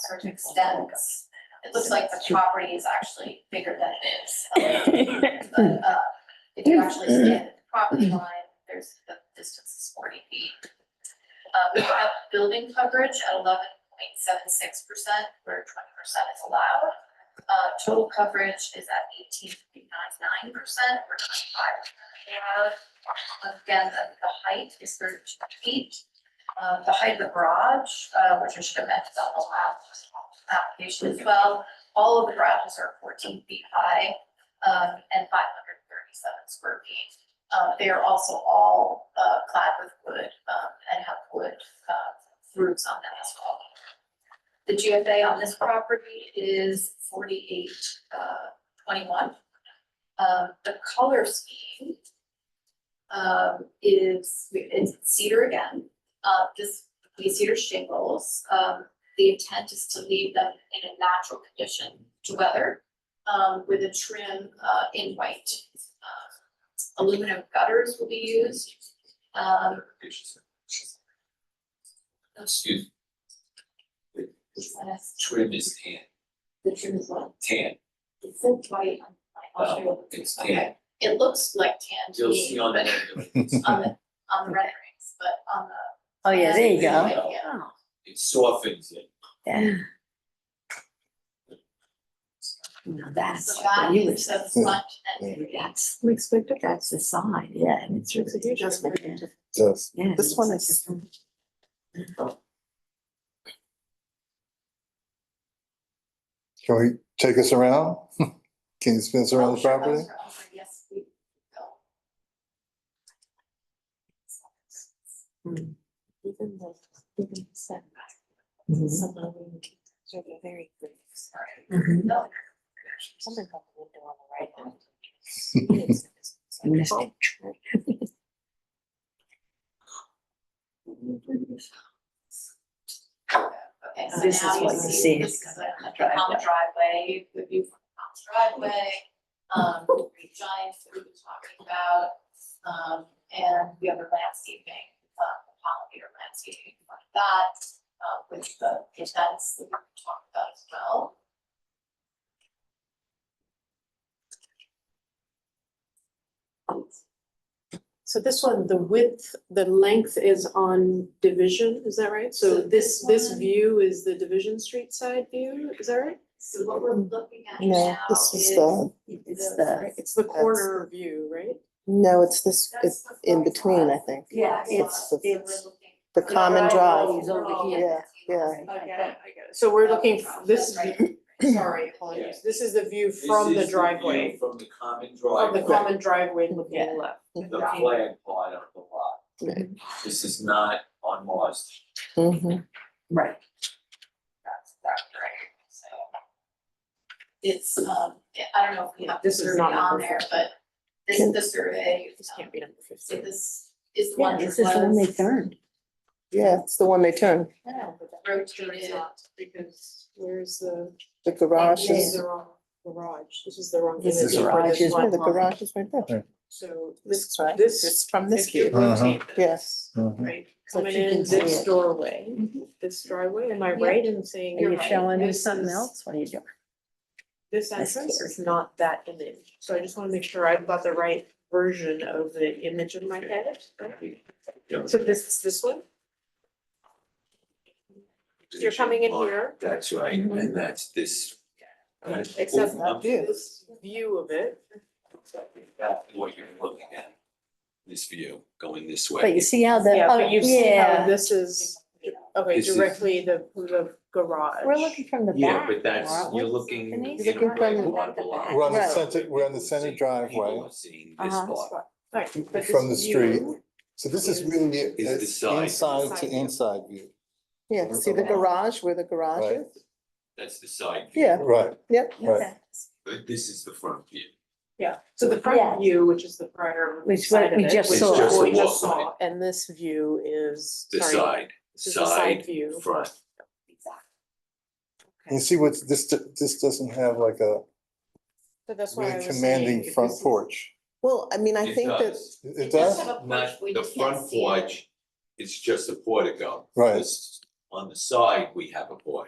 sort of extends. uh, It looks like the property is actually bigger than it is. But, uh, if you actually stand at the property line, there's, the distance is forty feet. Uh, we have building coverage at eleven point seven six percent, where twenty percent is allowed. Uh, total coverage is at eighteen point nine nine percent, where twenty-five percent is allowed. Again, the, the height is thirty-two feet. Uh, the height of the garage, uh, which I should have mentioned on the last application as well. All of the garages are fourteen feet high, um, and five hundred thirty-seven square feet. Uh, they are also all, uh, clad with wood, um, and have wood, uh, roofs on them as well. The GFA on this property is forty-eight, uh, twenty-one. Um, the color scheme, um, is, it's cedar again, uh, this, these cedar shingles, um, the intent is to leave them in a natural condition to weather, um, with a trim, uh, in white. Um, Aluminum gutters will be used, um, Excuse. me. the Trim is tan, trim is what, tan, it's in white, I'll show you. it's tan. Okay, it looks like tan to You'll me, see on but that. on the, on the renderings, but on the. Oh, yeah, there you go. Yeah, yeah. It softens it. Yeah. Now that's So what that you were is the saying. front and That's, that's the side, yeah, and it's really just, Just, yeah. This it's one like is- different. can we take us around? Can you spin us around Oh, the sure, property? those are over, Yes, we go. Hmm. even the living setback, Mhm. some of them sort of very good, sorry, Mhm. No, something about the window on the right hand. Yes, it's- it's like this picture. Okay, so This now is you what you see, see. this is a a common driveway, the view from the common driveway. Um, the three giants that we were talking about, um, and we have a landscaping, uh, pollinator landscaping like that. Uh, with the events that we talked about as well. So this one, the width, the length is on Division, is that right? So So this, this one- view is the Division Street side view, is that right? So what we're looking at No, now this is. is the, It's the, It's the corner view, right? no, it's this, That's it's the in front between, I lot. think, Yeah, it's the- it's. the common drive. is over here. Yeah, yeah. Oh, So we're looking, f- this view, sorry, Yeah. apologies, this is the view This from is the view driveway, From the common of the driveway. common driveway Yeah. looking left. The flag part of the lot. Right. This is not on Mars. Mhm. right, That's, that's right, so. It's, um, I don't know if we have the This is survey not on number there, but this is the survey, This um, can't be number so fifteen. this is the yeah, one that this is when they was turned. Yeah, it's the one they turn, rotated. Because where's the, the garage this is is, the wrong garage, this is the wrong This image is for garage this is one yeah, the line. garage is right there. So This this, is right, this it's from this If you view, Uh-huh. rotate this. Yes. Mhm. Right, So coming you in can see this it. doorway, this driveway, am I Yeah. right in saying? Are you you're right, showing me this something is- else? What are you doing? This That's entrance here. is not that image, so I just wanna make sure I've got the right version of the image in my head. So this is this one, you're coming in here, That's right, Mm-hmm. and that's this. Except I'm- this view of it, that's What you're looking at, this view going this way. But you see how the, yeah, oh, but you see how yeah, this is, okay, This is- directly the, the garage. we're looking from the back. Yeah, but that's, aren't we? you're looking in Denise? a Looking from way the along back of line. the We're on the house. center- we're on the center People are driveway. seeing this Uh-huh. part. Right, but From this the street. view- So this is really, the it's side. inside to Side. inside view, yeah, see the garage where the garage Right. is, That's the side view. yeah, right, yep. right. But this is the front view. Yeah, so the Yeah. front view, which is the prior Which side what of we it, just which is saw. what Just we the just walkway. saw, and this view is, The sorry, side, this is the side side, view. front. You see what's, this, this doesn't have like a So that's why I really was saying. commanding if front this is- porch. Well, I mean, I It think that, does. It it does does, have a porch, Not, we the just can't front see it. porch, it's just a portico. Right. This- On the side, we have a porch.